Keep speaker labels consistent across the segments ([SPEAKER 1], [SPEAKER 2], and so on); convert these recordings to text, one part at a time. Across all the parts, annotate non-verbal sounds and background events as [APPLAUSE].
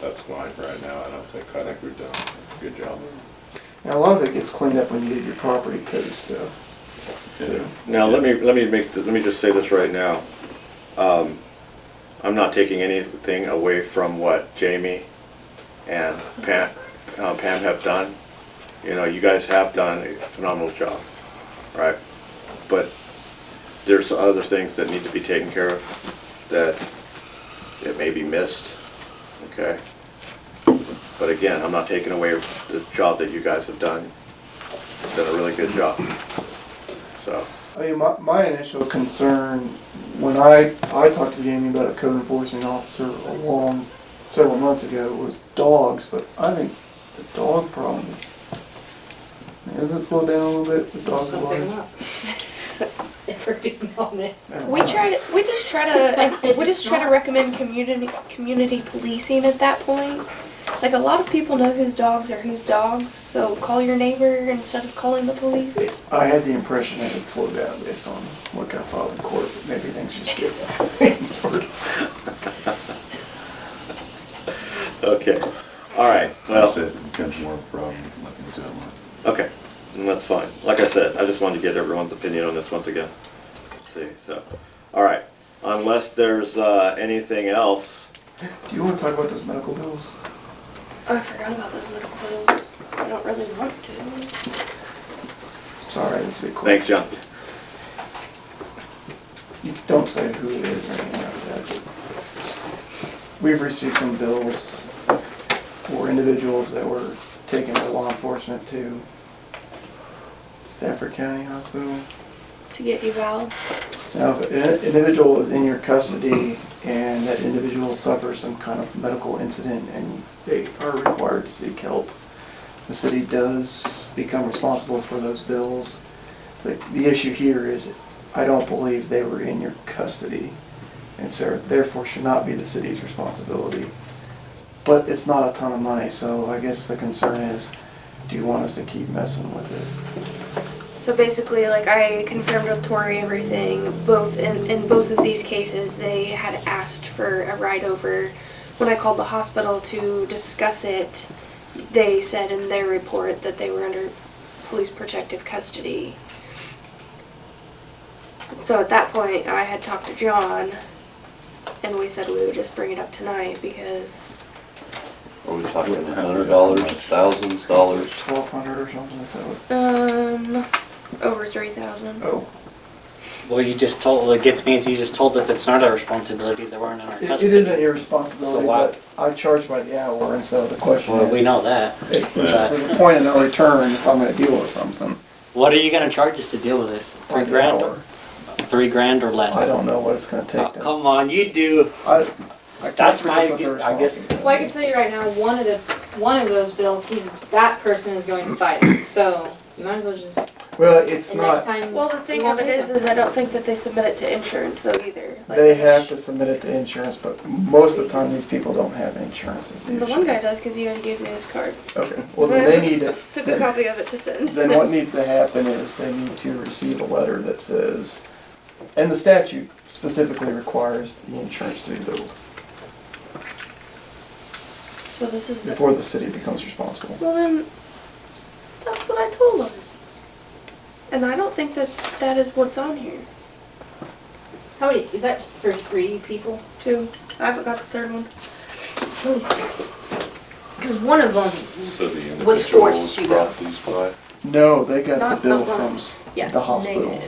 [SPEAKER 1] that's mine right now, I don't think, I think we've done a good job.
[SPEAKER 2] Now, a lot of it gets cleaned up when you do your property code stuff. So,
[SPEAKER 3] Now, let me, let me make, th- let me just say this right now. Um, I'm not taking anything away from what Jamie and Pam, uh, Pam have done. You know, you guys have done a phenomenal job, right? But there's other things that need to be taken care of that it may be missed, okay? But again, I'm not taking away the job that you guys have done. You've done a really good job, so.
[SPEAKER 2] I mean, my, my initial concern, when I, I talked to Jamie about a code enforcement officer a long, several months ago, was dogs, but I think the dog problem is, doesn't it slow down a little bit, the dog problem?
[SPEAKER 4] [LAUGHS] If we're being honest.
[SPEAKER 5] We try to, we just try to, we just try to recommend community, community policing at that point. Like, a lot of people know whose dogs are whose dogs, so call your neighbor instead of calling the police.
[SPEAKER 2] I had the impression that it slowed down based on what got filed in court, but maybe things just get [LAUGHS] ignored.
[SPEAKER 3] Okay, all right, well,
[SPEAKER 1] That's it, becomes more of a problem, looking into it more.
[SPEAKER 3] okay, and that's fine. Like I said, I just wanted to get everyone's opinion on this once again. Let's see, so, all right, unless there's uh, anything else,
[SPEAKER 2] Do you wanna talk about those medical bills?
[SPEAKER 5] Oh, I forgot about those medical bills. I don't really want to.
[SPEAKER 2] Sorry, this would be quick.
[SPEAKER 3] thanks, John.
[SPEAKER 2] You don't say who it is or anything like that. but We've received some bills for individuals that were taken by law enforcement to Stafford County Hospital.
[SPEAKER 5] To get you valid.
[SPEAKER 2] Now, if an individual is in your custody and that individual suffers some kind of medical incident and they are required to seek help, the city does become responsible for those bills. The, the issue here is, I don't believe they were in your custody, and so therefore should not be the city's responsibility. But it's not a ton of money, so I guess the concern is, do you want us to keep messing with it?
[SPEAKER 5] So basically, like, I confirmed with Tori everything. Both, in, in both of these cases, they had asked for a ride over. When I called the hospital to discuss it, they said in their report that they were under police protective custody. So at that point, I had talked to John, and we said we would just bring it up tonight because
[SPEAKER 6] Are we talking a hundred dollars, thousands dollars?
[SPEAKER 2] Twelve hundred or something, is that what's,
[SPEAKER 5] um, over three thousand.
[SPEAKER 2] oh.
[SPEAKER 7] Well, you just told, what gets me is you just told us it's not our responsibility, they weren't in our
[SPEAKER 2] It-
[SPEAKER 7] custody.
[SPEAKER 2] It isn't your responsibility,
[SPEAKER 7] So why-
[SPEAKER 2] but I charge by the hour, and so the question
[SPEAKER 7] Well,
[SPEAKER 2] is.
[SPEAKER 7] we know that.
[SPEAKER 2] if
[SPEAKER 7] but-
[SPEAKER 2] There's a point of no return if I'm gonna deal with something.
[SPEAKER 7] What are you gonna charge us to deal with this?
[SPEAKER 2] by
[SPEAKER 7] Three
[SPEAKER 2] the
[SPEAKER 7] grand
[SPEAKER 2] hour.
[SPEAKER 7] or, three grand or less?
[SPEAKER 2] I don't know what it's gonna
[SPEAKER 7] Oh,
[SPEAKER 2] take. to-
[SPEAKER 7] Come on, you do.
[SPEAKER 2] I- I can't
[SPEAKER 7] That's
[SPEAKER 2] predict
[SPEAKER 7] my
[SPEAKER 2] what their
[SPEAKER 7] gu- I guess-
[SPEAKER 2] responsibility is.
[SPEAKER 4] Well, I can tell you right now, one of the, one of those bills, he's, that person is going to fight, so you might as well just,
[SPEAKER 2] Well, it's
[SPEAKER 4] and
[SPEAKER 2] not,
[SPEAKER 4] next time.
[SPEAKER 5] Well, the thing of it is, is I don't think that they submit it to insurance though either. Like,
[SPEAKER 2] they
[SPEAKER 5] sh-
[SPEAKER 2] have to submit it to insurance, but most of the time, these people don't have insurance is the
[SPEAKER 5] The
[SPEAKER 2] issue.
[SPEAKER 5] one guy does because you already gave me his card.
[SPEAKER 2] Okay, well, then they need,
[SPEAKER 5] [LAUGHS]
[SPEAKER 2] to-
[SPEAKER 5] Took a copy of it to send.
[SPEAKER 2] then
[SPEAKER 5] [LAUGHS]
[SPEAKER 2] what needs to happen is they need to receive a letter that says, and the statute specifically requires the insurance to be billed
[SPEAKER 5] so this is the.
[SPEAKER 2] before the city becomes responsible.
[SPEAKER 5] Well then, that's what I told him. And I don't think that that is what's on here.
[SPEAKER 4] How many, is that for three people?
[SPEAKER 5] Too. I haven't got the third one.
[SPEAKER 4] Let me see. Cause one of them,
[SPEAKER 1] So the
[SPEAKER 4] Was
[SPEAKER 1] individual
[SPEAKER 4] forced
[SPEAKER 1] was
[SPEAKER 4] to go.
[SPEAKER 1] brought these by,
[SPEAKER 2] No, they got
[SPEAKER 5] Not
[SPEAKER 2] the bill
[SPEAKER 5] the one.
[SPEAKER 2] from s-
[SPEAKER 4] yeah.
[SPEAKER 2] the hospital.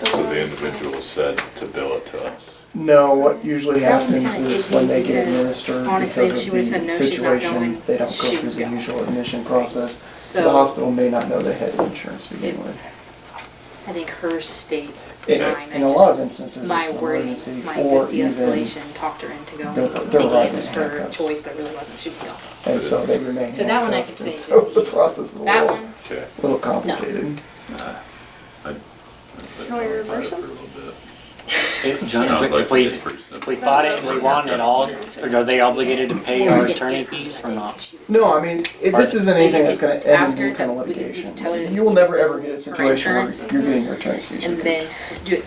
[SPEAKER 5] The
[SPEAKER 1] so
[SPEAKER 5] one-
[SPEAKER 1] the individual said to bill it to us.
[SPEAKER 2] No, what usually
[SPEAKER 8] That one's
[SPEAKER 2] happens
[SPEAKER 8] kinda
[SPEAKER 2] is
[SPEAKER 8] iffy
[SPEAKER 2] when they get
[SPEAKER 8] because
[SPEAKER 2] administered because
[SPEAKER 8] honestly, if
[SPEAKER 2] of
[SPEAKER 8] she would've said
[SPEAKER 2] the
[SPEAKER 8] no, she's not
[SPEAKER 2] situation,
[SPEAKER 8] going,
[SPEAKER 2] they don't go
[SPEAKER 8] she
[SPEAKER 2] through
[SPEAKER 8] was
[SPEAKER 2] the
[SPEAKER 8] going.
[SPEAKER 2] usual admission process. So the
[SPEAKER 8] So
[SPEAKER 2] hospital may not know they had insurance to begin with.
[SPEAKER 8] I think her state
[SPEAKER 2] In
[SPEAKER 8] line,
[SPEAKER 2] in
[SPEAKER 8] I
[SPEAKER 2] a lot of
[SPEAKER 8] just-
[SPEAKER 2] instances,
[SPEAKER 8] my
[SPEAKER 2] it's an
[SPEAKER 8] wording,
[SPEAKER 2] emergency
[SPEAKER 8] my
[SPEAKER 2] or even,
[SPEAKER 8] de-escalation talked her into going,
[SPEAKER 2] they're- they're
[SPEAKER 8] thinking
[SPEAKER 2] riding
[SPEAKER 8] it was
[SPEAKER 2] in
[SPEAKER 8] her
[SPEAKER 2] handcuffs.
[SPEAKER 8] choice, but it really wasn't, she was gone.
[SPEAKER 2] and so they remain
[SPEAKER 8] So that one I
[SPEAKER 2] handcuffed,
[SPEAKER 8] could
[SPEAKER 2] and
[SPEAKER 8] say
[SPEAKER 2] [LAUGHS] So
[SPEAKER 8] is
[SPEAKER 2] the
[SPEAKER 8] easy.
[SPEAKER 2] process is a
[SPEAKER 8] That
[SPEAKER 2] little,
[SPEAKER 8] one,
[SPEAKER 1] Okay.
[SPEAKER 2] little complicated.
[SPEAKER 5] Can we reverse them?
[SPEAKER 7] If-
[SPEAKER 1] Sounds
[SPEAKER 7] John,
[SPEAKER 1] like
[SPEAKER 7] if we,
[SPEAKER 1] it's pretty
[SPEAKER 7] if
[SPEAKER 1] simple.
[SPEAKER 7] we bought it and we won it all, are they obligated to pay our attorney fees or not?
[SPEAKER 2] No, I mean, it- this
[SPEAKER 7] Or-
[SPEAKER 2] isn't
[SPEAKER 8] So you
[SPEAKER 2] anything that's
[SPEAKER 8] could
[SPEAKER 2] gonna end
[SPEAKER 8] ask
[SPEAKER 2] in any
[SPEAKER 8] her
[SPEAKER 2] kind of
[SPEAKER 8] that we could- we could
[SPEAKER 2] litigation.
[SPEAKER 8] tell her that
[SPEAKER 2] You will never ever get a
[SPEAKER 8] her
[SPEAKER 2] situation where
[SPEAKER 8] insurance-
[SPEAKER 2] you're getting your attorney's fees.
[SPEAKER 8] And
[SPEAKER 2] reduced.
[SPEAKER 8] then do it